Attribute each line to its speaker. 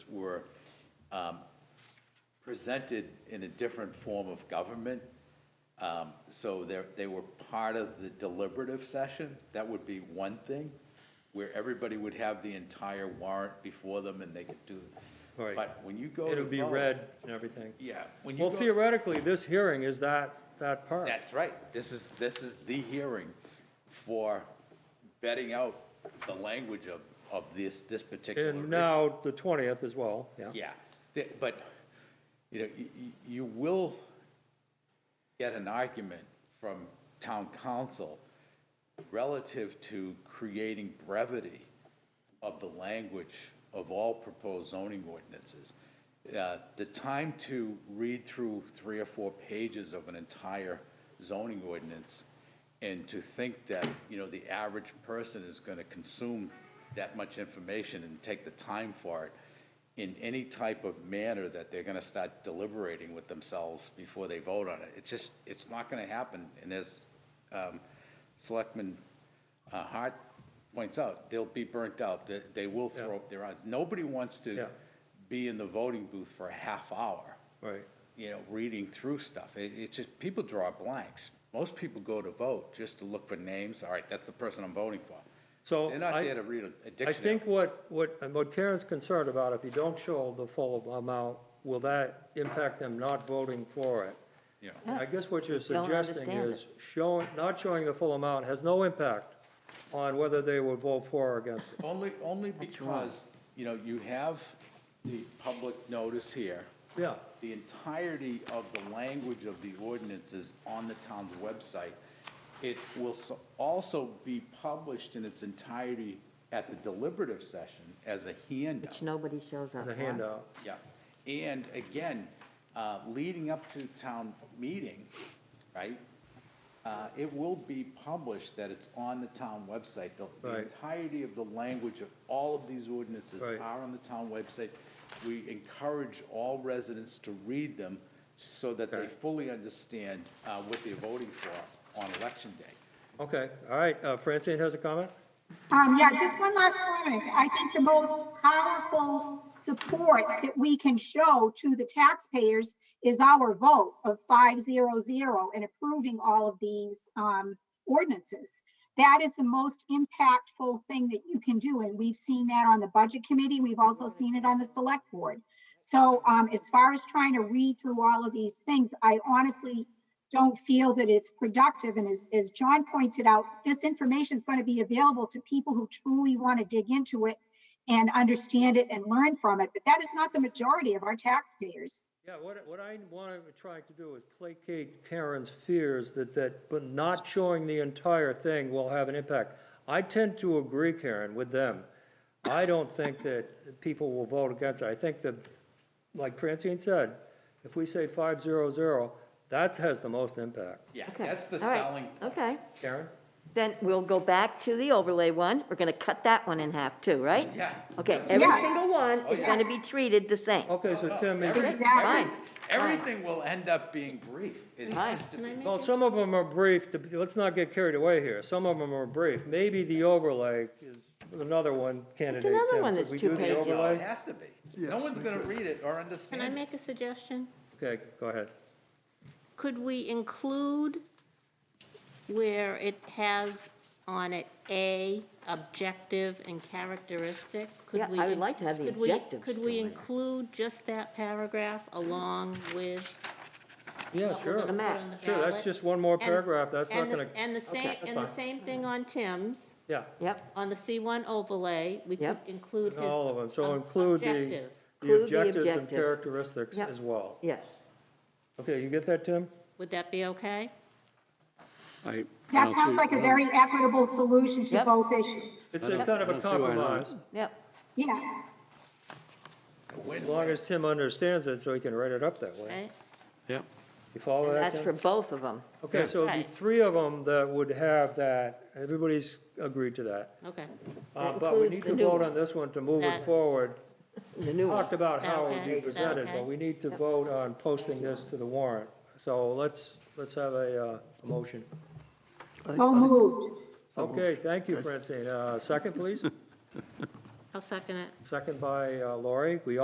Speaker 1: were um, presented in a different form of government. Um, So they're, they were part of the deliberative session. That would be one thing, where everybody would have the entire warrant before them and they could do.
Speaker 2: Right.
Speaker 1: But when you go to
Speaker 2: It'll be
Speaker 1: vote-
Speaker 2: read and everything.
Speaker 1: Yeah. when you
Speaker 2: Well,
Speaker 1: go-
Speaker 2: theoretically, this hearing is that, that part.
Speaker 1: That's right. This is, this is the hearing for betting out the language of, of this, this particular issue.
Speaker 2: And now the twentieth as well, yeah.
Speaker 1: Yeah, Th- but, you know, you, you will get an argument from town council relative to creating brevity of the language of all proposed zoning ordinances. Uh, The time to read through three or four pages of an entire zoning ordinance and to think that, you know, the average person is going to consume that much information and take the time for it in any type of manner that they're going to start deliberating with themselves before they vote on it. It's just, it's not going to happen. And as um, Selectman uh, Hart points out, they'll be burnt out. They- They will throw up their eyes. Nobody wants to
Speaker 2: Yeah.
Speaker 1: be in the voting booth for a half hour,
Speaker 2: Right.
Speaker 1: you know, reading through stuff. It- It's just, people draw blanks. Most people go to vote just to look for names. All right, that's the person I'm voting for.
Speaker 2: So
Speaker 1: They're not
Speaker 2: I-
Speaker 1: there to read a- a
Speaker 2: I
Speaker 1: dictionary.
Speaker 2: think what, what, and what Karen's concerned about, if you don't show the full amount, will that impact them not voting for it?
Speaker 1: Yeah.
Speaker 2: And I guess what you're
Speaker 3: Don't
Speaker 2: suggesting
Speaker 3: understand
Speaker 2: is showing, not showing the full amount has no impact on whether they would vote for or against it.
Speaker 1: Only, only because, you know, you have the public notice here.
Speaker 2: Yeah,
Speaker 1: The entirety of the language of the ordinance is on the town's website. It will so- also be published in its entirety at the deliberative session as a handout.
Speaker 3: Which nobody shows up
Speaker 2: as a
Speaker 3: for.
Speaker 2: handout.
Speaker 1: Yeah, and again, uh, leading up to town meeting, right? uh, It will be published that it's on the town website. The- The
Speaker 2: Right.
Speaker 1: entirety of the language of all of these ordinances
Speaker 2: Right.
Speaker 1: are on the town website. We encourage all residents to read them so that they
Speaker 2: Okay.
Speaker 1: fully understand uh, what they're voting for on election day.
Speaker 2: Okay, all right, uh, Francine has a comment?
Speaker 4: Um, yeah, just one last comment. I think the most powerful support that we can show to the taxpayers is our vote of five zero zero and approving all of these, um, ordinances. That is the most impactful thing that you can do, and we've seen that on the budget committee. We've also seen it on the select board. So, um, as far as trying to read through all of these things, I honestly don't feel that it's productive. And as, as John pointed out, this information is going to be available to people who truly want to dig into it and understand it and learn from it. But that is not the majority of our taxpayers.
Speaker 2: Yeah, what, what I want to try to do is placate Karen's fears that, that, but not showing the entire thing will have an impact. I tend to agree, Karen, with them. I don't think that people will vote against it. I think that, like Francine said, if we say five zero zero, that has the most impact.
Speaker 1: Yeah,
Speaker 3: Okay,
Speaker 1: that's the
Speaker 3: all right,
Speaker 1: selling point.
Speaker 3: Okay,
Speaker 2: Karen?
Speaker 3: then we'll go back to the overlay one. We're gonna cut that one in half too, right?
Speaker 1: Yeah. Oh,
Speaker 3: Okay, every
Speaker 4: Yes.
Speaker 3: single one is
Speaker 1: yeah.
Speaker 3: gonna be treated the same.
Speaker 2: Okay, so Tim, is-
Speaker 3: Okay,
Speaker 4: Exactly.
Speaker 3: Fine.
Speaker 1: Everything will end up being brief. It
Speaker 3: Fine.
Speaker 1: has to be.
Speaker 2: well, some of them are brief, to- let's not get carried away here. Some of them are brief. Maybe the overlay is another one candidate, Tim.
Speaker 3: another one
Speaker 2: Could
Speaker 3: that's
Speaker 2: we
Speaker 3: two
Speaker 2: do the
Speaker 3: pages.
Speaker 1: No,
Speaker 2: overlay?
Speaker 1: it has to be. No one's going to read it or
Speaker 5: Can
Speaker 1: understand
Speaker 5: I
Speaker 1: it.
Speaker 5: make a suggestion?
Speaker 2: Okay, go ahead.
Speaker 5: Could we include where it has on it A, objective and characteristic? Could
Speaker 3: Yeah,
Speaker 5: we
Speaker 3: I would like to have the
Speaker 5: could we-
Speaker 3: objectives
Speaker 5: Could
Speaker 3: still
Speaker 5: we
Speaker 3: in there.
Speaker 5: include just that paragraph along with
Speaker 2: Yeah,
Speaker 5: what
Speaker 2: Oh, sure.
Speaker 5: we're gonna put
Speaker 3: map.
Speaker 5: on the
Speaker 2: Sure, that's
Speaker 5: ballot?
Speaker 2: just one more
Speaker 5: And-
Speaker 2: paragraph, that's not
Speaker 5: and the-
Speaker 2: gonna-
Speaker 5: And the same,
Speaker 2: that's
Speaker 5: and the
Speaker 2: fine.
Speaker 5: same thing on Tim's,
Speaker 2: Yeah,
Speaker 3: Yep,
Speaker 5: on the C1 overlay, we could
Speaker 3: Yep.
Speaker 5: include his.
Speaker 2: all of them, so
Speaker 5: ob-
Speaker 2: include the,
Speaker 5: objective
Speaker 2: the
Speaker 3: Include the
Speaker 2: objectives and
Speaker 3: objective.
Speaker 2: characteristics
Speaker 3: Yep.
Speaker 2: as well.
Speaker 3: yes.
Speaker 2: Okay, you get that, Tim?
Speaker 5: Would that be okay?
Speaker 6: I, I
Speaker 4: That
Speaker 6: don't
Speaker 4: sounds
Speaker 6: see-
Speaker 4: like a very equitable solution to
Speaker 3: Yep.
Speaker 4: both issues.
Speaker 2: It's a kind of
Speaker 6: I
Speaker 2: a
Speaker 6: don't see why not.
Speaker 2: compromise,
Speaker 3: Yep,
Speaker 4: Yes.
Speaker 2: as long as Tim understands it, so he can write it up that way.
Speaker 5: Right?
Speaker 6: Yep,
Speaker 2: You follow that,
Speaker 3: that's for
Speaker 2: Tim?
Speaker 3: both of them.
Speaker 2: Okay, so the
Speaker 5: Right.
Speaker 2: three of them that would have that, everybody's agreed to that.
Speaker 5: Okay,
Speaker 2: Uh,
Speaker 3: That
Speaker 2: but we
Speaker 3: includes
Speaker 2: need
Speaker 3: the
Speaker 2: to
Speaker 3: new
Speaker 2: vote
Speaker 3: one.
Speaker 2: on this one to move it
Speaker 5: That-
Speaker 2: forward.
Speaker 3: The new one.
Speaker 2: Talked about how it would be
Speaker 5: Okay,
Speaker 2: presented, but
Speaker 5: okay.
Speaker 2: we need to vote on posting this to the warrant. So let's, let's have a, uh, a motion.
Speaker 4: So moved.
Speaker 2: Okay, thank you, Francine. Uh, Second, please?
Speaker 5: I'll second it.
Speaker 2: Second by uh, Lori. We